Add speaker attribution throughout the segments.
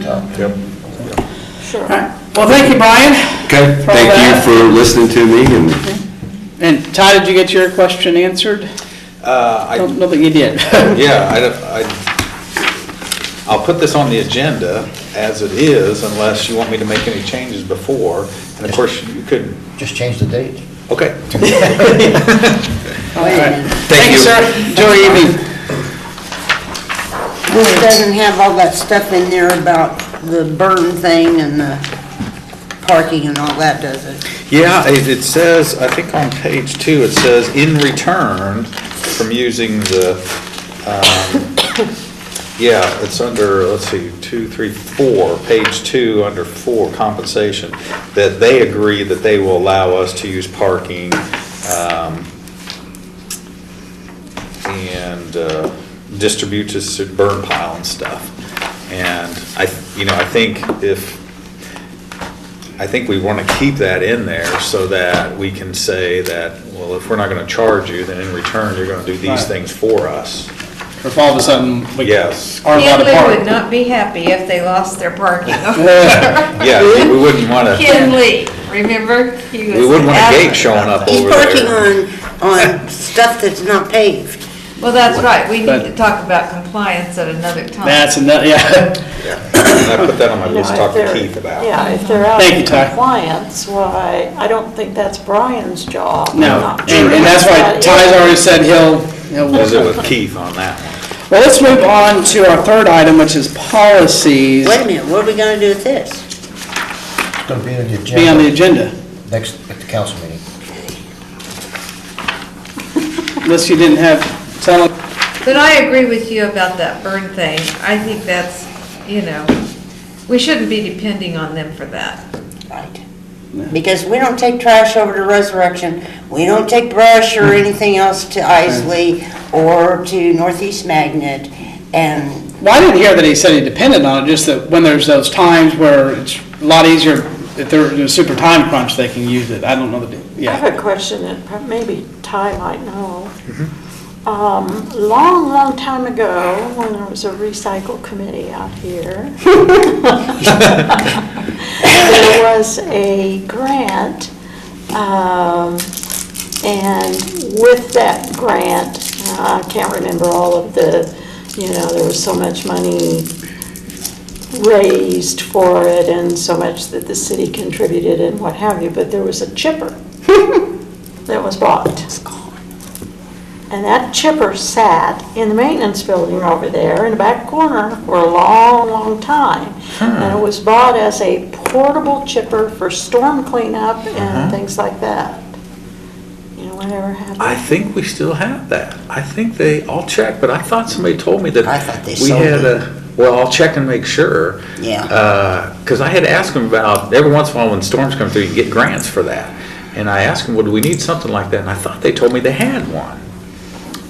Speaker 1: so.
Speaker 2: Yep.
Speaker 1: Sure.
Speaker 3: All right. Well, thank you, Brian.
Speaker 4: Okay,
Speaker 3: For all
Speaker 4: thank you
Speaker 3: that.
Speaker 4: for listening to me, and
Speaker 3: And Todd, did you get your question answered?
Speaker 2: Uh, I
Speaker 3: Don't know that you did.
Speaker 2: Yeah, I, I, I'll put this on the agenda as it is unless you want me to make any changes before. And of course, you could,
Speaker 5: Just change the date.
Speaker 2: okay.
Speaker 3: All right.
Speaker 4: Thank
Speaker 3: Thank you,
Speaker 4: you.
Speaker 3: sir. Enjoy your evening.
Speaker 6: This doesn't have all that stuff in there about the burn thing and the parking and all that, does it?
Speaker 2: Yeah, it, it says, I think on page two, it says, in return from using the, um, yeah, it's under, let's see, two, three, four, page two, under four, compensation, that they agree that they will allow us to use parking, um, and uh, distribute to s- burn pile and stuff. And I, you know, I think if, I think we want to keep that in there so that we can say that, well, if we're not going to charge you, then in return, you're going to do these
Speaker 3: Right.
Speaker 2: things for us.
Speaker 3: If all of a sudden we
Speaker 2: Yes.
Speaker 3: are allowed to
Speaker 1: Kinley would
Speaker 3: park.
Speaker 1: not be happy if they lost their parking.
Speaker 2: Yeah, we wouldn't want to,
Speaker 1: Kinley, remember? He was
Speaker 2: we wouldn't want a gate
Speaker 1: adamant.
Speaker 2: showing up
Speaker 6: He's
Speaker 2: over
Speaker 6: parking
Speaker 2: there.
Speaker 6: on, on stuff that's not paved.
Speaker 1: Well, that's right, we need to
Speaker 3: But-
Speaker 1: talk about compliance at another time.
Speaker 3: That's enough, yeah.
Speaker 2: And I put that on my list,
Speaker 7: Yeah,
Speaker 2: talk
Speaker 7: if
Speaker 2: to
Speaker 7: they're-
Speaker 2: Keith about.
Speaker 7: Yeah, if they're out
Speaker 3: Thank you,
Speaker 7: of
Speaker 3: Ty.
Speaker 7: compliance, why, I don't think that's Brian's job. I'm
Speaker 3: No,
Speaker 7: not sure
Speaker 3: and, and that's why
Speaker 7: what that
Speaker 3: Ty's
Speaker 7: is.
Speaker 3: already said he'll, he'll.
Speaker 2: Visit with Keith on that one.
Speaker 3: Well, let's move on to our third item, which is policies.
Speaker 6: Wait a minute, what are we gonna do with this?
Speaker 5: It's gonna be on the
Speaker 3: Be on the
Speaker 5: agenda
Speaker 3: agenda,
Speaker 5: next, at the council meeting.
Speaker 3: unless you didn't have, tell them,
Speaker 1: But I agree with you about that burn thing. I think that's, you know, we shouldn't be depending on them for that.
Speaker 6: Right. Because we don't take trash over to Resurrection, we don't take brush
Speaker 2: Hmm.
Speaker 6: or anything else to Isley or to Northeast Magnet, and
Speaker 3: well, I didn't hear that he said he depended on it, just that when there's those times where it's a lot easier, if they're in a super time crunch, they can use it. I don't know the,
Speaker 7: I
Speaker 3: yeah.
Speaker 7: have a question that prob- maybe Ty might know. Um, long, long time ago, when there was a recycle committee out here, there was a grant, um, and with that grant, uh, I can't remember all of the, you know, there was so much money raised for it and so much that the city contributed and what have you, but there was a chipper that was bought. And that chipper sat in the maintenance building over there in the back corner for a long, long time.
Speaker 2: Hmm.
Speaker 7: And it was bought as a portable chipper for storm cleanup
Speaker 2: Uh-huh.
Speaker 7: and things like that. You know, whatever happened.
Speaker 2: I think we still have that. I think they, I'll check, but I thought somebody told me that.
Speaker 6: I thought they
Speaker 2: We
Speaker 6: sold
Speaker 2: had
Speaker 6: it.
Speaker 2: a, well, I'll check and make sure.
Speaker 6: Yeah.
Speaker 2: Because I had asked him about, every once in a while when storms come through, you get grants for that. And I asked him, well, do we need something like that? And I thought they told me they had one.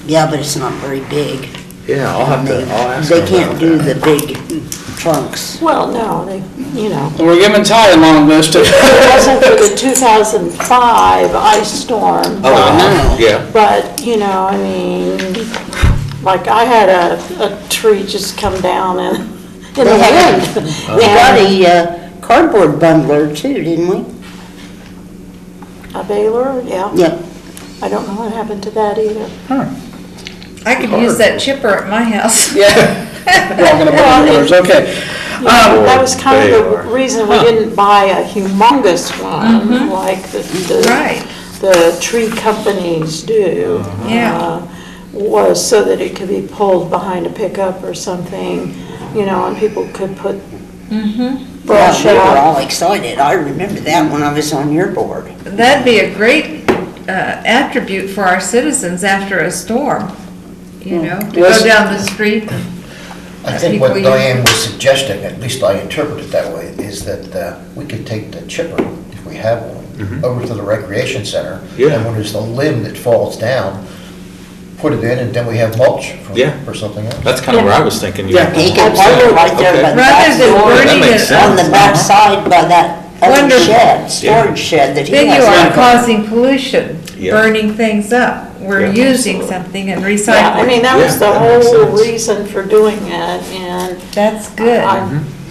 Speaker 6: yeah, but it's not very big.
Speaker 2: Yeah, I'll have to, I'll ask him
Speaker 6: They
Speaker 2: about
Speaker 6: can't do
Speaker 2: that.
Speaker 6: the big trunks.
Speaker 7: Well, no, they, you know.
Speaker 3: We're giving Ty a long list of,
Speaker 7: It wasn't for the 2005 ice storm.
Speaker 2: Oh, yeah.
Speaker 7: But, you know, I mean, like, I had a, a tree just come down in, in
Speaker 6: They had-
Speaker 7: the wind.
Speaker 6: We got a uh, cardboard bundler too, didn't we?
Speaker 7: A baler, yeah.
Speaker 6: Yeah.
Speaker 7: I don't know what happened to that either.
Speaker 1: I could use that chipper at my house.
Speaker 3: yeah. We're all gonna burn yours, okay.
Speaker 7: Yeah, That was kind of
Speaker 2: baler.
Speaker 7: the reason we didn't buy a humongous one, like the,
Speaker 1: Mm-hmm. Right. Uh-huh.
Speaker 7: the, the tree companies do.
Speaker 1: Yeah.
Speaker 7: uh, Was so that it could be pulled behind a pickup or something, you know, and people could put
Speaker 6: Well,
Speaker 7: brush
Speaker 6: we were
Speaker 7: out.
Speaker 6: all excited. I remember that when I was on your board.
Speaker 1: That'd be a great uh, attribute for our citizens after a storm,
Speaker 2: Hmm.
Speaker 1: you know, to
Speaker 3: Yes.
Speaker 1: go down the street.
Speaker 5: I think what
Speaker 1: People use-
Speaker 5: Diane was suggesting, at least I interpret it that way, is that uh, we could take the chipper, if we have
Speaker 3: Mm-hmm.
Speaker 5: one, over to the recreation center.
Speaker 2: Yeah.
Speaker 5: And when there's the limb that falls down, put it in, and then we have mulch for-
Speaker 2: Yeah.
Speaker 5: for something else.
Speaker 2: That's kind of where I was thinking. you-
Speaker 3: Yeah.
Speaker 6: He could bundle right there by the back
Speaker 1: Rather than
Speaker 6: door,
Speaker 2: that
Speaker 1: burning
Speaker 2: makes
Speaker 1: it
Speaker 2: sense.
Speaker 1: up,
Speaker 6: on the back side by that other
Speaker 1: Wonderful.
Speaker 6: shed, storage shed that he
Speaker 1: then you
Speaker 6: has.
Speaker 1: are causing pollution,
Speaker 2: Yeah.
Speaker 1: burning things up. We're
Speaker 2: Yeah.
Speaker 1: using something and
Speaker 7: Yeah, I
Speaker 1: recycling.
Speaker 7: mean, that was
Speaker 2: Yeah,
Speaker 7: the
Speaker 2: that makes
Speaker 7: whole
Speaker 2: sense.
Speaker 7: reason for doing it, and
Speaker 1: That's good.
Speaker 7: I-